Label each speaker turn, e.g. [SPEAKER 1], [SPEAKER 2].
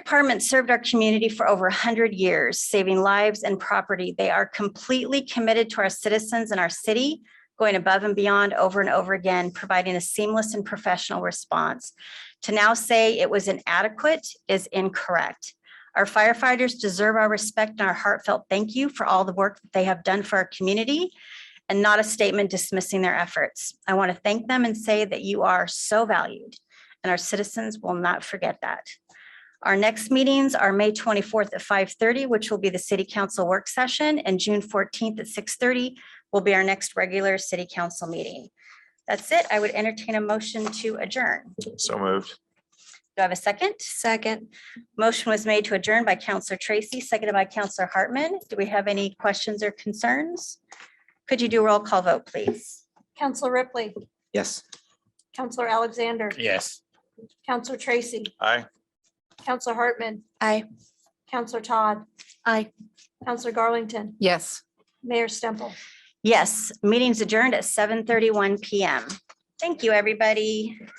[SPEAKER 1] department served our community for over hundred years, saving lives and property. They are completely committed to our citizens and our city, going above and beyond over and over again, providing a seamless and professional response. To now say it was inadequate is incorrect. Our firefighters deserve our respect and our heartfelt thank you for all the work that they have done for our community and not a statement dismissing their efforts. I want to thank them and say that you are so valued and our citizens will not forget that. Our next meetings are May 24th at 5:30, which will be the city council work session, and June 14th at 6:30 will be our next regular city council meeting. That's it. I would entertain a motion to adjourn.
[SPEAKER 2] So moved.
[SPEAKER 1] Do I have a second? Second. Motion was made to adjourn by Counselor Tracy, seconded by Counselor Hartman. Do we have any questions or concerns? Could you do a roll call vote, please?
[SPEAKER 3] Counselor Ripley,
[SPEAKER 4] Yes.
[SPEAKER 3] Counselor Alexander,
[SPEAKER 2] Yes.
[SPEAKER 3] Counselor Tracy,
[SPEAKER 2] Aye.
[SPEAKER 3] Counselor Hartman,
[SPEAKER 5] Aye.
[SPEAKER 3] Counselor Todd.
[SPEAKER 5] Aye.
[SPEAKER 3] Counselor Garlington,
[SPEAKER 5] Yes.
[SPEAKER 3] Mayor Stemple.
[SPEAKER 1] Yes, meeting's adjourned at 7:31 PM. Thank you, everybody.